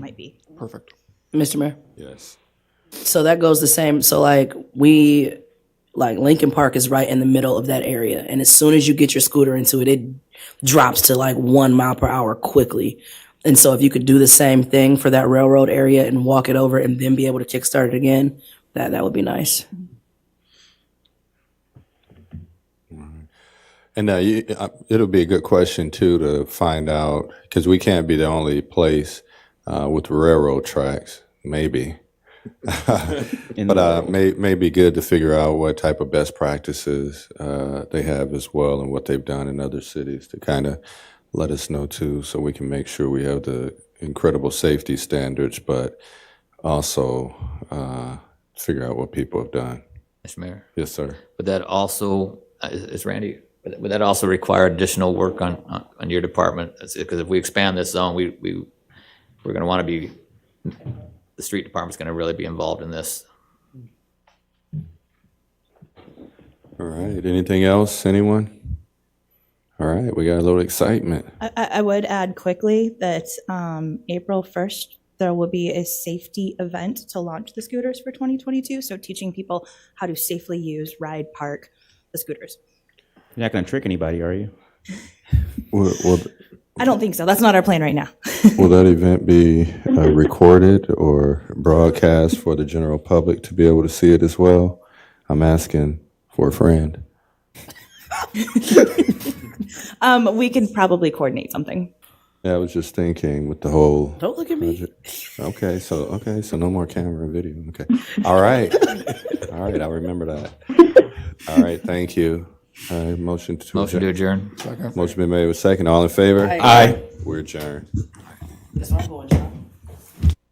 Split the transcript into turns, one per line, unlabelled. might be.
Perfect.
Mr. Mayor.
Yes.
So that goes the same. So like we, like Lincoln Park is right in the middle of that area, and as soon as you get your scooter into it, it drops to like one mile per hour quickly. And so if you could do the same thing for that railroad area and walk it over, and then be able to kickstart it again, that that would be nice.
And uh, you, uh, it'll be a good question too to find out because we can't be the only place uh, with railroad tracks. Maybe, but uh, may may be good to figure out what type of best practices uh, they have as well, and what they've done in other cities to kind of let us know too, so we can make sure we have the incredible safety standards, but also uh, figure out what people have done.
Mr. Mayor,
Yes, sir.
would that also, uh, is is Randy, would would that also require additional work on, on- on your department? Because if we expand this zone, we, we, we're going to want to be, the street department's going to really be involved in this.
All right. Anything else? Anyone? All right. We got a little excitement.
I, I I would add quickly that um, April 1st, there will be a safety event to launch the scooters for 2022. So teaching people how to safely use, ride, park the scooters.
You're not going to trick anybody, are you?
Will, will,
I don't think so. That's not our plan right now.
will that event be uh, recorded or broadcast for the general public to be able to see it as well? I'm asking for a friend.
Um, we can probably coordinate something.
Yeah, I was just thinking with the whole.
Don't look at me.
Okay, so okay, so no more camera and video. Okay, all right, all right. I remember that. All right, thank you. Uh, motion to
Motion to
adjourn.
adjourn.
Motion been made with second. All in favor? Aye. We're adjourned.
That's where I'm going, John.